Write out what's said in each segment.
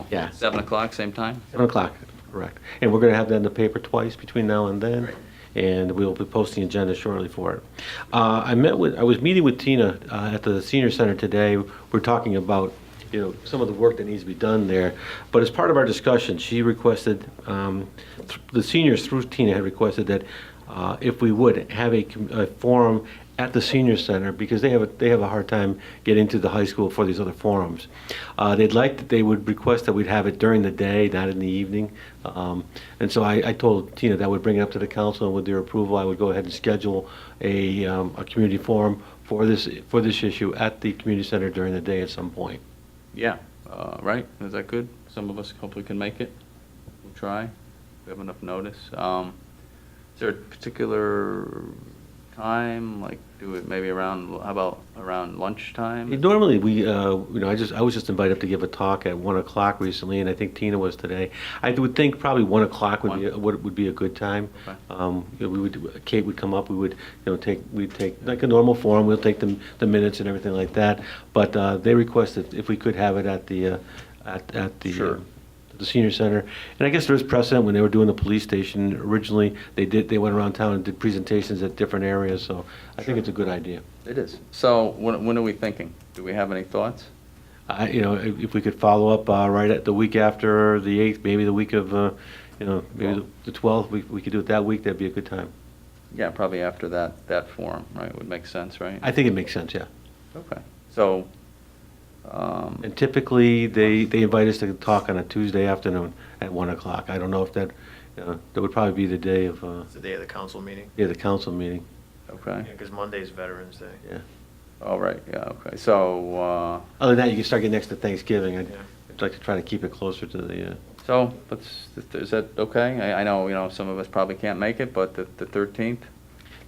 so. Yeah. Seven o'clock, same time? 7 o'clock, correct. And we're going to have that in the paper twice between now and then, and we will be posting agenda shortly for it. Uh, I met with, I was meeting with Tina uh, at the senior center today. We're talking about, you know, some of the work that needs to be done there. But as part of our discussion, she requested, um, th- the seniors through Tina had requested that uh, if we would have a com- a forum at the senior center because they have a, they have a hard time getting to the high school for these other forums. Uh, they'd like that they would request that we'd have it during the day, not in the evening. Um, and so I, I told Tina that I would bring it up to the council and with their approval, I would go ahead and schedule a, um, a community forum for this for this issue at the community center during the day at some point. Yeah, uh, right, is that good? Some of us hopefully can make it. We'll try, we have enough notice. Um, Is there a particular time, like, do it maybe around, how about around lunchtime? Normally, we, uh, you know, I just, I was just invited up to give a talk at one o'clock recently, and I think Tina was today. I would think probably one o'clock would be, One. would, would be a good time. Okay. Um, you know, we would, Kate would come up, we would, you know, take, we'd take, like a normal forum, we'll take the, the minutes and everything like that. But, uh, they requested if we could have it at the, uh, at, at the. uh, Sure. The senior center. And I guess there is precedent when they were doing the police station originally, they did, they went around town and did presentations at different areas, so I think it's a good idea. It is. So when, when are we thinking? Do we have any thoughts? I, you know, if, if we could follow up, uh, right at the week after the eighth, maybe the week of, uh, you know, maybe the twelfth, we, we could do it that week, that'd be a good time. Yeah, probably after that, that forum, right, would make sense, right? I think it makes sense, yeah. Okay, so, um, And typically, they, they invite us to talk on a Tuesday afternoon at one o'clock. I don't know if that, you know, that would probably be the day of, uh, It's the day of the council meeting, yeah, the council meeting, okay, because Monday's Veterans Day. yeah. all right, yeah, okay, so, uh, Other than that, you can start getting next to Thanksgiving. I'd Yeah. I'd like to try to keep it closer to the, uh, so, let's, is that okay? I, I know, you know, some of us probably can't make it, but the, the thirteenth?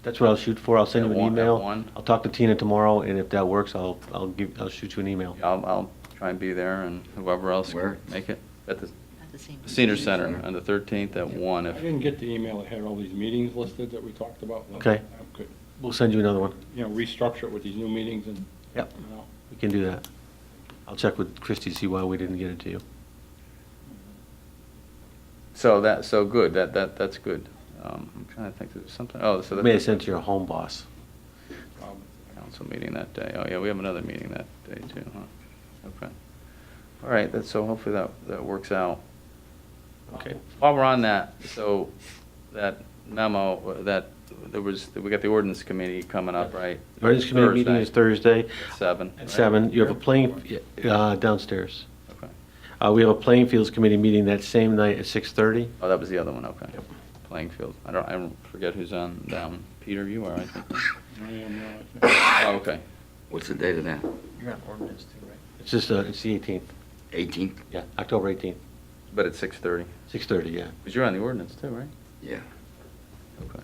that's what I'll shoot for. I'll send At you an one- at email. one? I'll talk to Tina tomorrow, and if that works, I'll, I'll give, I'll shoot you an email. I'll, I'll try and be there and whoever else can Where? make it. At the At the same. Senior Center on the 13th at one. I if, didn't get the email that had all these meetings listed that we talked about. Okay. I could, We'll send you another one. You know, restructure it with these new meetings and. Yep. you know. We can do that. I'll check with Christie, to see why we didn't get it to you. so that, so good, that, that, that's good. Um, I'm trying to think, there's something, oh, so You May have that's sent it to your home boss. Um, a council meeting that day. Oh, yeah, we have another meeting that day too, huh? Okay. All right, that's, so hopefully that, that works out. Okay. While we're on that, so that memo, that, there was, we got the ordinance committee coming up, right? The Ordinance Committee meeting Thursday is Thursday at Seven. at right? seven. You have a playing, uh, downstairs. Okay. Uh, we have a playing fields committee meeting that same night at six thirty. Oh, that was the other one, okay. Playing field. I don't, I don't forget who's on that one. Peter, you are, I think. I am, uh, I think- Oh, okay. What's the date of that? You're on ordinance too, right? It's just, uh, it's the eighteenth, 18th? yeah, October eighteenth, But it's six thirty. six thirty, yeah. Because you're on the ordinance too, right? Yeah. Okay.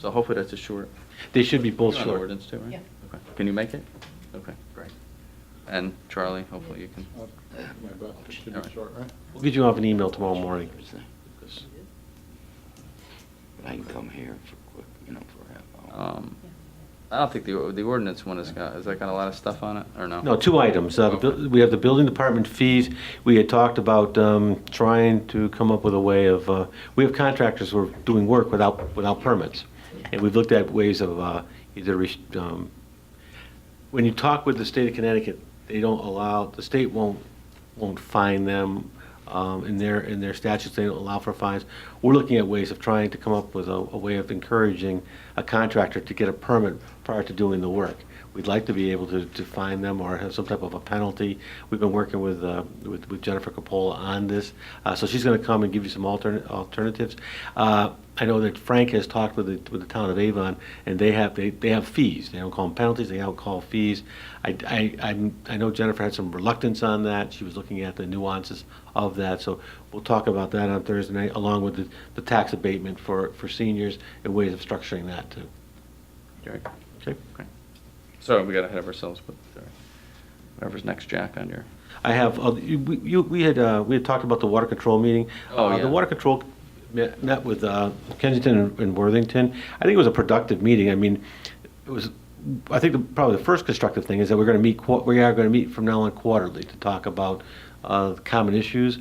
So hopefully that's a short. They should be both You're on the short. ordinance too, right? Yeah. Okay. Can you make it? Okay, great. And Charlie, hopefully you can. I'll do uh, My best, it should be short, right? We'll get you off an email tomorrow morning. But I can come here for quick, you know, for a half hour. Um, I don't think the, the ordinance one has got, has that got a lot of stuff on it, or no? No, two items. Uh, the Okay. buil- We have the building department fees. We had talked about um, trying to come up with a way of, uh, we have contractors who are doing work without, without permits. And we've looked at ways of uh, either, res- um, when you talk with the state of Connecticut, they don't allow, the state won't, won't fine them. um, In their, in their statutes, they don't allow for fines. We're looking at ways of trying to come up with a, a way of encouraging a contractor to get a permit prior to doing the work. We'd like to be able to, to fine them or have some type of a penalty. We've been working with, uh, with with Jennifer Capola on this. Uh, So she's going to come and give you some altern alternatives. Uh, I know that Frank has talked with the, with the town of Avon, and they have, they, they have fees. They don't call them penalties, they don't call fees. I, I, I'm- I know Jennifer had some reluctance on that. She was looking at the nuances of that. So we'll talk about that on Thursday night, along with the, the tax abatement for, for seniors and ways of structuring that too. Jerry? Okay? Okay. Sorry, we got ahead of ourselves, but uh, whatever's next, Jack, on your. I have, uh, you- we, you- we had, uh, we had talked about the water control meeting. Oh, Uh, yeah. The water control met met with uh, Kensington and- and Worthington. I think it was a productive meeting. I mean, it was, I think the- probably the first constructive thing is that we're going to meet, qua- we are going to meet from now on quarterly to talk about uh, common issues.